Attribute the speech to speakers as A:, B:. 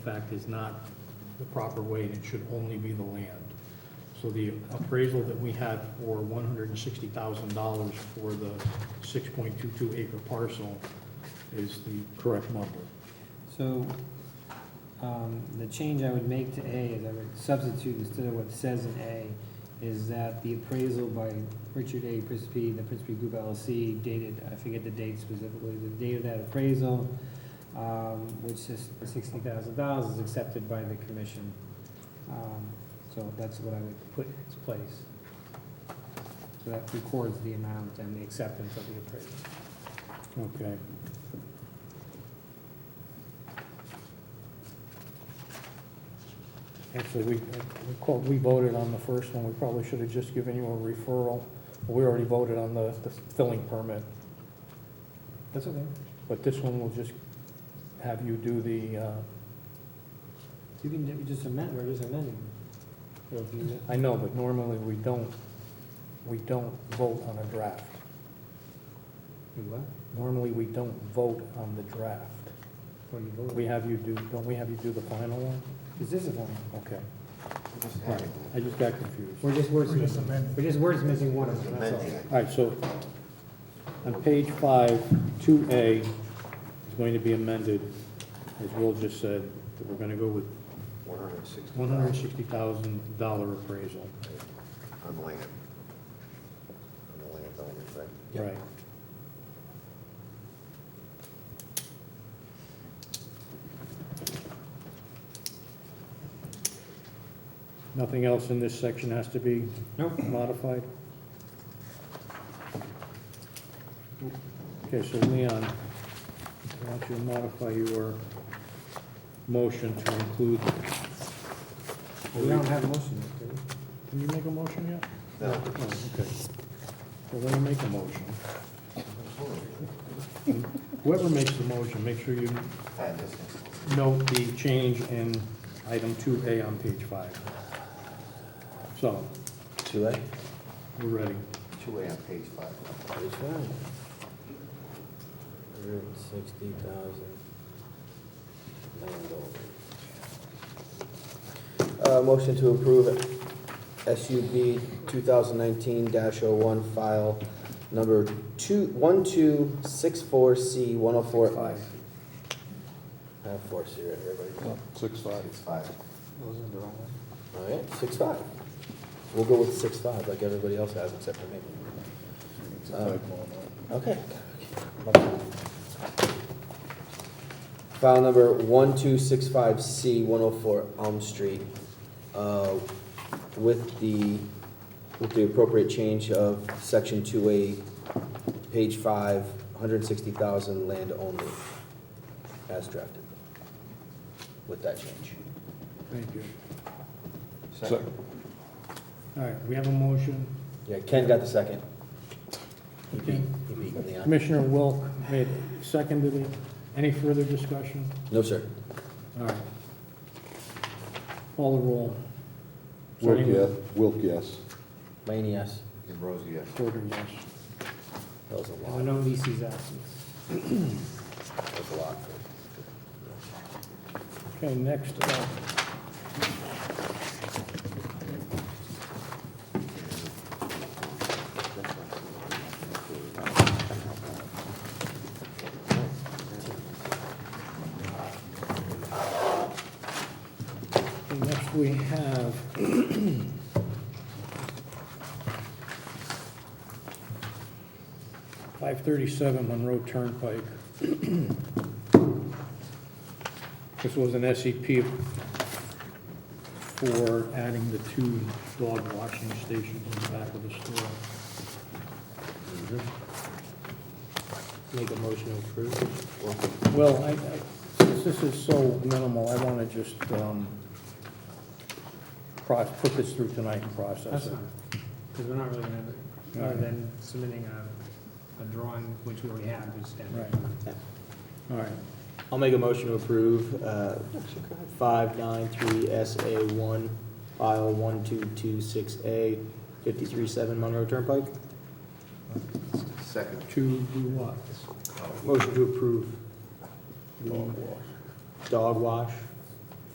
A: fact is not the proper way, and it should only be the land. So the appraisal that we had for one hundred and sixty thousand dollars for the six point two-two acre parcel is the correct number.
B: So, um, the change I would make to A is I would substitute instead of what it says in A is that the appraisal by Richard A. Prispy, the Prispy Group LLC dated, I forget the date specifically, the date of that appraisal, um, which is sixty thousand dollars is accepted by the commission. Um, so that's what I would put in its place. So that records the amount and the acceptance of the appraisal.
A: Okay. Actually, we, we called- we voted on the first one, we probably should have just given you a referral. We already voted on the, the filling permit,
B: That's okay.
A: but this one will just have you do the, uh,
B: You can ju- just amend, we're just amending. It'll be-
A: I know, but normally we don't, we don't vote on a draft.
B: You what?
A: Normally, we don't vote on the draft.
B: What are you voting?
A: We have you do, don't we have you do the final one?
B: Is this a form?
A: Okay. Right. I just got confused.
B: We're just words
C: We're just
B: missing.
C: amending.
B: We're just words missing one of them, that's all.
C: Amending.
A: All right, so on page five, two A is going to be amended, as Will just said, that we're gonna go with
C: One hundred and sixty
A: one hundred and sixty thousand dollar appraisal.
C: On the land. On the land, on the thing.
A: Right. Nothing else in this section has to be
B: Nope.
A: modified? Okay, so Leon, I want you to modify your motion to include,
B: We don't have a motion yet, do we?
A: can you make a motion yet?
C: No.
A: Oh, okay. Well, let me make a motion. Whoever makes the motion, make sure you
C: Add this.
A: note the change in item two A on page five. So,
C: Two A?
A: we're ready.
C: Two A on page five.
D: Which one? Hundred and sixty thousand landowners. Uh, motion to approve SUB two thousand nineteen dash oh one file number two, one two six four C one oh four. I have four C right here, everybody.
C: Six five. Six five.
B: Those are the wrong ones.
D: All right, six five. We'll go with six five like everybody else has except for me. Um, Okay. File number one two six five C one oh four Elm Street, uh, with the, with the appropriate change of section two A, page five, hundred and sixty thousand land only, as drafted. With that change.
A: Thank you.
C: Second.
A: All right, we have a motion.
D: Yeah, Ken got the second. He beat,
A: Okay.
D: he beat Leon.
A: Commissioner Wilk made, seconded it. Any further discussion?
D: No, sir.
A: All right. Call the roll.
E: Wilk,
A: Starting
E: yes.
A: with
E: Wilk, yes.
D: Laney, yes.
C: And Rosie, yes.
A: Porter, yes.
D: That was a
B: There were
D: lot,
B: Oh, no leases absent.
D: that was a lot.
A: Okay, next uh, up. Okay, Next, we have five thirty-seven Monroe Turnpike. This was an SEP for adding the two dog washing stations in the back of the store.
B: Make a motion to approve.
A: Well, I, I, since this is so minimal, I wanna just, um, cross, put this through tonight and process
B: That's
A: it.
B: fine, because we're not really gonna, other than submitting a, a drawing, which we already have, which is standard.
A: Right. All right,
F: I'll make a motion to approve uh, 593SA1, file 1226A, 537 Monroe Turnpike.
C: Second.
A: to do what?
F: Motion to approve
A: Dog wash.
F: dog wash